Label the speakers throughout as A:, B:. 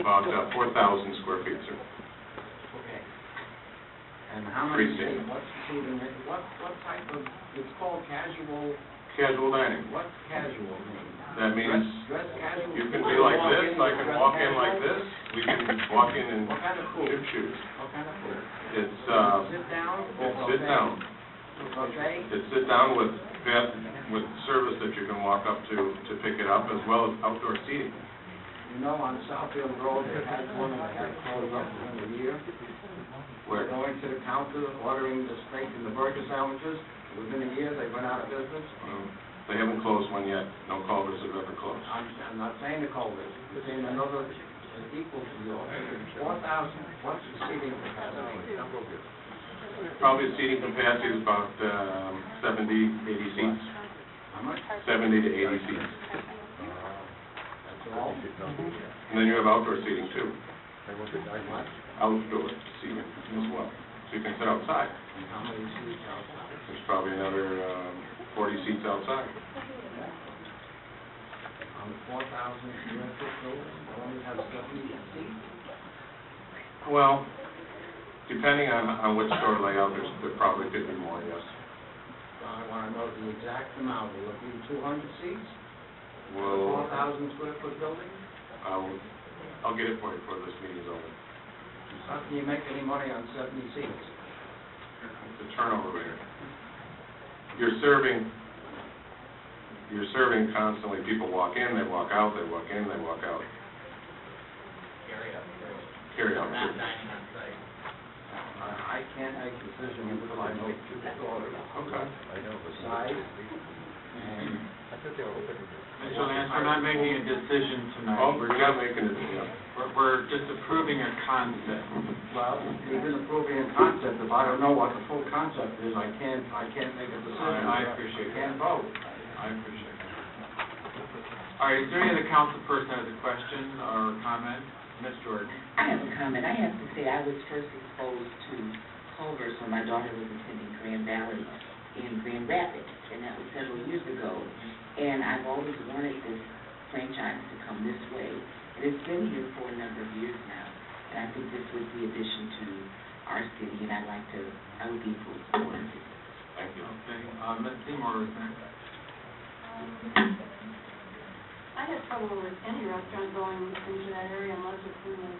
A: about uh, 4,000 square feet, sir.
B: Okay. And how much,
A: Freestanding.
B: what's included, in- what, what type of, it's called casual,
A: Casual dining.
B: what's casual mean?
A: That means
B: Dress casual?
A: you can be like this, I can walk in like
B: Dress
A: this, we can walk in
B: casual?
A: and
B: What kind of cool?
A: shoot shoes.
B: What kind of cool?
A: It's, uh,
B: Sit down?
A: it's sit down.
B: Okay?
A: It's sit down with bed, with service that you can walk up to, to pick it up, as well as outdoor seating.
B: You know, on Southfield Road, they had one that got closed up for a year.
A: Where, um,
B: Going to the counter, ordering the steak and the burger sandwiches, within a year, they went out of business.
A: um, they haven't closed one yet, no Culvers have ever closed.
B: I'm, I'm not saying the Culvers, I'm saying another uh, equal to yours. Four thousand, what's the seating capacity?
A: Probably seating capacity is about um, 70, 80 seats,
B: How much? Uh,
A: 70 to 80 seats.
B: That's all?
A: And then you have outdoor seating too,
B: What?
A: outdoor seating as well. So you can sit outside,
B: And how many seats outside?
A: there's probably another um, 40 seats outside.
B: On the four thousand square foot building, it only has seventy seats?
A: Well, depending on, on which store layout, there's, there probably could be more, yes.
B: So I wanna know the exact amount, will it be two hundred seats?
A: Well,
B: Four thousand square foot building?
A: I'll, I'll get it for you before this meeting's over.
B: How can you make any money on seventy seats?
A: the turnover rate. You're serving, you're serving constantly, people walk in, they walk out, they walk in, they walk out,
C: Carry up.
A: carry out.
C: Not dining on site.
B: I, I can't make a decision until I know two stories.
A: Okay.
B: Size and
C: Mr. Lance, we're not making a decision
A: Oh,
C: tonight.
A: we're not making it, yeah.
C: We're, we're just approving a concept.
B: Well, we've been approving a concept, if I don't know what the full concept is, I can't, I can't make a decision.
C: I- I appreciate
B: I can't vote.
C: I appreciate that. All right, is there any other council person that has a question or comment? Ms. Jordan?
D: I have a comment. I have to say, I was first exposed to Culver's when my daughter was attending Grand Valley in Grand Rapids, and that was several years ago. And I've always wanted this franchise to come this way, and it's been here for a number of years now. And I think this was the addition to our city, and I'd like to, I would be full support of it.
A: Thank you.
C: Okay, uh, Ms. Seymour is next.
E: I have trouble with any restaurant going into that area unless it's in the,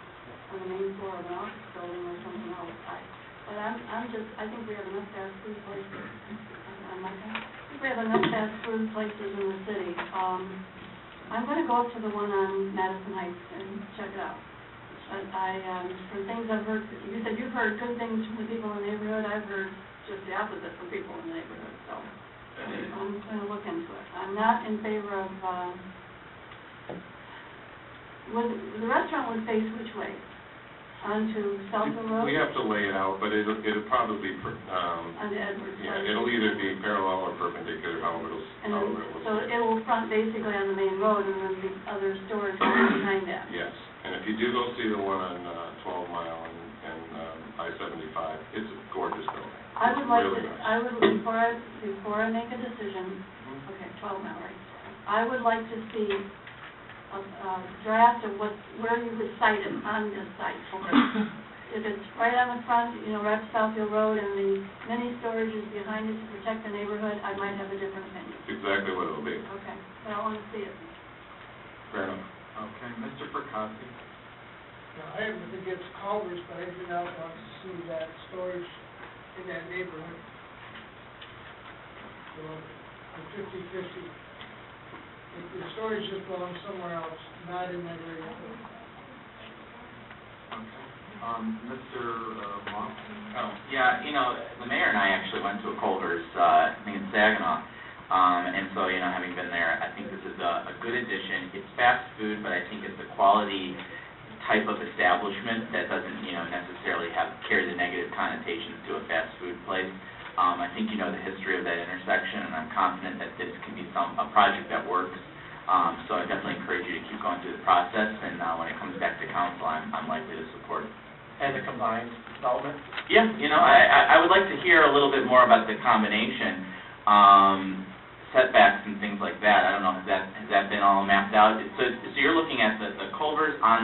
E: on the main floor of an office building or something else. I- But I'm, I'm just, I think we have enough fast food places, I'm- I'm like, that. I think we have enough fast food places in the city. Um, I'm gonna go up to the one on Madison Heights and check it out. But I, um, from things I've heard, you said you've heard good things from the people in the neighborhood, I've heard just the opposite from people in the neighborhood, so. I'm gonna look into it. I'm not in favor of, uh, would, the restaurant would face which way? Onto Southfield Road?
A: We have to lay it out, but it'll, it'll probably be, per- um,
E: Onto Edwards Road?
A: yeah, it'll either be parallel or perpendicular, however it'll,
E: And then,
A: however it
E: so
A: will.
E: it will front basically on the main road and then the other stores will be behind that.
A: Yes, and if you do go see the one on uh, 12 Mile and, and um, I-75, it's a gorgeous building.
E: I would like to,
A: Really nice.
E: I would, before I, before I make a decision, okay, twelve now, right? I would like to see a, a draft of what, where you would cite it on this site for it. If it's right on the front, you know, right to Southfield Road and the mini storage is behind it to protect the neighborhood, I might have a different opinion.
A: It's exactly what it'll be.
E: Okay, but I wanna see it.
A: Fair enough.
C: Okay, Mr. Perkowski.
F: Now, I have nothing against Culvers, but I do not want to see that storage in that neighborhood. So, I'm fifty-fifty. If the storage just belongs somewhere else, not in that area.
C: Okay. Um, Mr. uh, Monk?
G: Oh, yeah, you know, the mayor and I actually went to a Culver's, uh, I think in Saginaw. Um, and so, you know, having been there, I think this is a, a good addition. It's fast food, but I think it's a quality type of establishment that doesn't, you know, necessarily have, carry the negative connotations to a fast food place. Um, I think you know the history of that intersection, and I'm confident that this can be some, a project that works. Um, so I definitely encourage you to keep going through the process, and, uh, when it comes back to council, I'm, I'm likely to support it.
C: As a combined development?
G: Yeah, you know, I, I- I would like to hear a little bit more about the combination, um, setbacks and things like that. I don't know, has that, has that been all mapped out? So, so you're looking at the, the culverts on